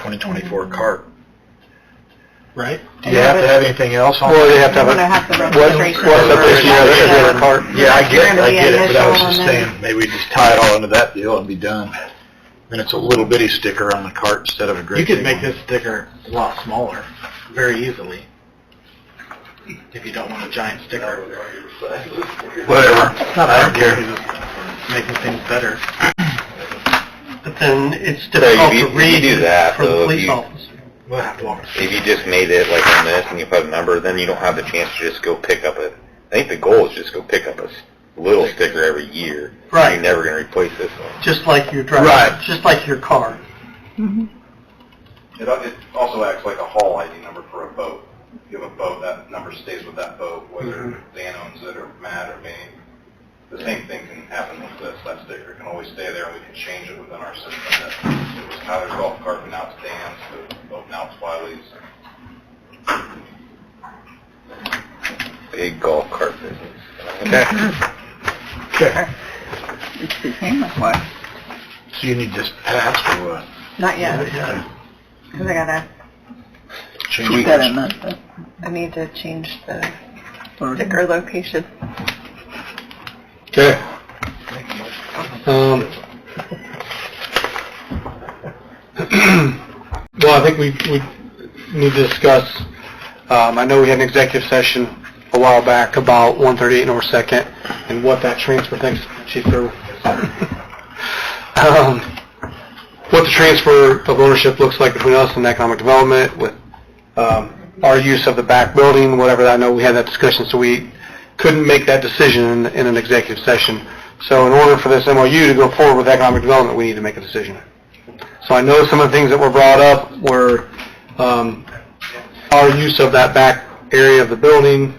2024 cart. right? Do you have to have anything else on? Well, you have to have We're a, gonna have the what, registration. what's up this year, number, this year, um, cart? Yeah, I get, it, I get it, but I was Initial just and then- saying, maybe we just tie it all into that deal and be done. Then it's a little bitty sticker on the cart instead of a great You could big make one. this sticker a lot smaller, very easily, if you don't want a giant sticker. Whatever, I don't care. Making things better. But then it's So if difficult you, to if you read do that, for the though, if police you, officer. We'll have to walk. if you just made it like on this and you put a number, then you don't have the chance to just go pick up a, I think the goal is just go pick up a s- little sticker every year. Right. You're never gonna replace this one. Just like your driver, Right. just like your car. It, it also acts like a haul ID number for a boat. If you have a boat, that number stays with that boat, whether Dan owns it or Matt or me. The same thing can happen with this. That sticker can always stay there, and we can change it within our system. That it was Tyler's golf cart, but now it's Dan's, but boat now it's Wiley's. Big golf cart business. It's the same as what? So you need this passed or what? Not yet, because I gotta, Change gotta course. not- I need to change the sticker location. Okay. Um, well, I think we, we need to discuss, um, I know we had an executive session a while back about 138 North Second and what that transfer, thanks, Chief Gerber. Um, what the transfer of ownership looks like between us and economic development with, um, our use of the back building, whatever, I know we had that discussion, so we couldn't make that decision in- in an executive session. So in order for this MOU to go forward with economic development, we need to make a decision. So I know some of the things that were brought up were um, our use of that back area of the building,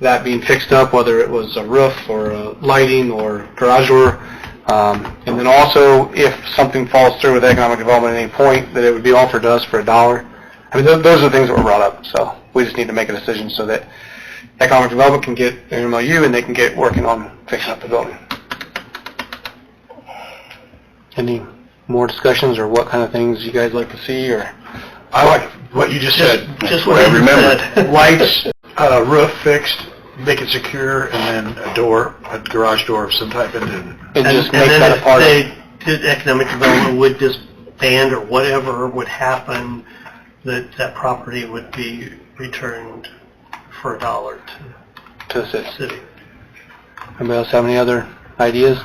that being fixed up, whether it was a roof or a lighting or garage door. Um, And then also, if something falls through with economic development at any point, that it would be offered to us for a dollar. I mean, tho- those are the things that were brought up, so we just need to make a decision so that economic development can get an MOU and they can get working on fixing up the building. Any more discussions or what kind of things you guys like to see or? I like what you just said. just what what I you remembered. Lights, uh, roof fixed, make it secure, and then a door, a garage door of some type into And just make then that a if part of they did economic development would disband or whatever would happen, that that property would be returned for a dollar to to assist. the city. Anybody else have any other ideas?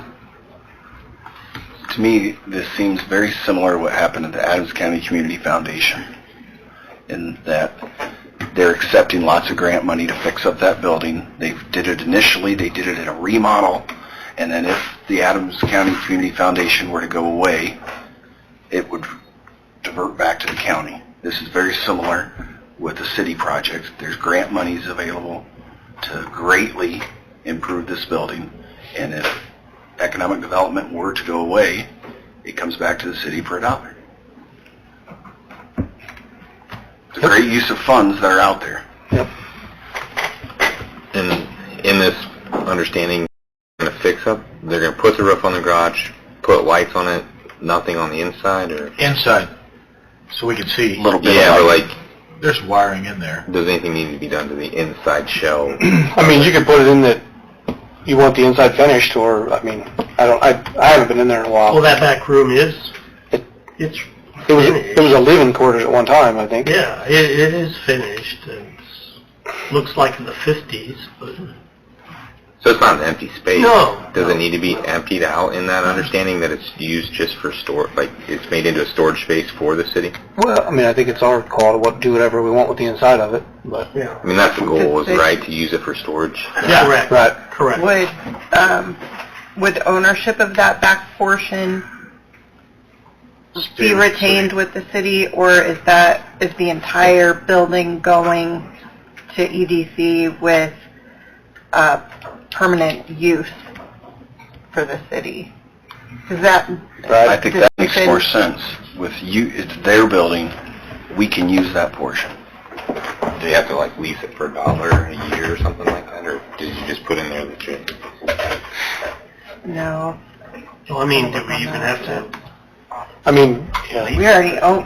To me, this seems very similar to what happened at the Adams County Community Foundation, in that they're accepting lots of grant money to fix up that building. They did it initially, they did it in a remodel, and then if the Adams County Community Foundation were to go away, it would divert back to the county. This is very similar with the city projects. There's grant monies available to greatly improve this building, and if economic development were to go away, it comes back to the city for a dollar. It's a great use of funds that are out there. And in this understanding, gonna fix up, they're gonna put the roof on the garage, put lights on it, nothing on the inside or? inside, so we can see. A little bit Yeah, of but like, like, There's wiring in there. does anything need to be done to the inside shell? I mean, you could put it in that you want the inside finished, or, I mean, I don't, I, I haven't been in there in a Well, while. that back room is, it's, It was, it was a living quarters at one time, I think. yeah, it, it is finished. and It's, looks like in the fifties, but So it's not an empty space? No. Mm-hmm. Does it need to be emptied out in that understanding that it's used just for store, like it's made into a storage space for the city? Well, I mean, I think it's our call to what, do whatever we want with the inside of it, but. yeah, I mean, that's the goal, is right, to use it for storage? correct, Right. correct. Would, um, would ownership of that back portion be retained with the city, or is that, is the entire building going to EDC with, uh, permanent use for the city? Is that, I think that makes Right. more sense. With you, it's their building, we can use that portion. Do you have to like lease it for a dollar a year or something like that, or did you just put in there that you? no, Well, I mean, do we even have to I mean, yeah. we already own,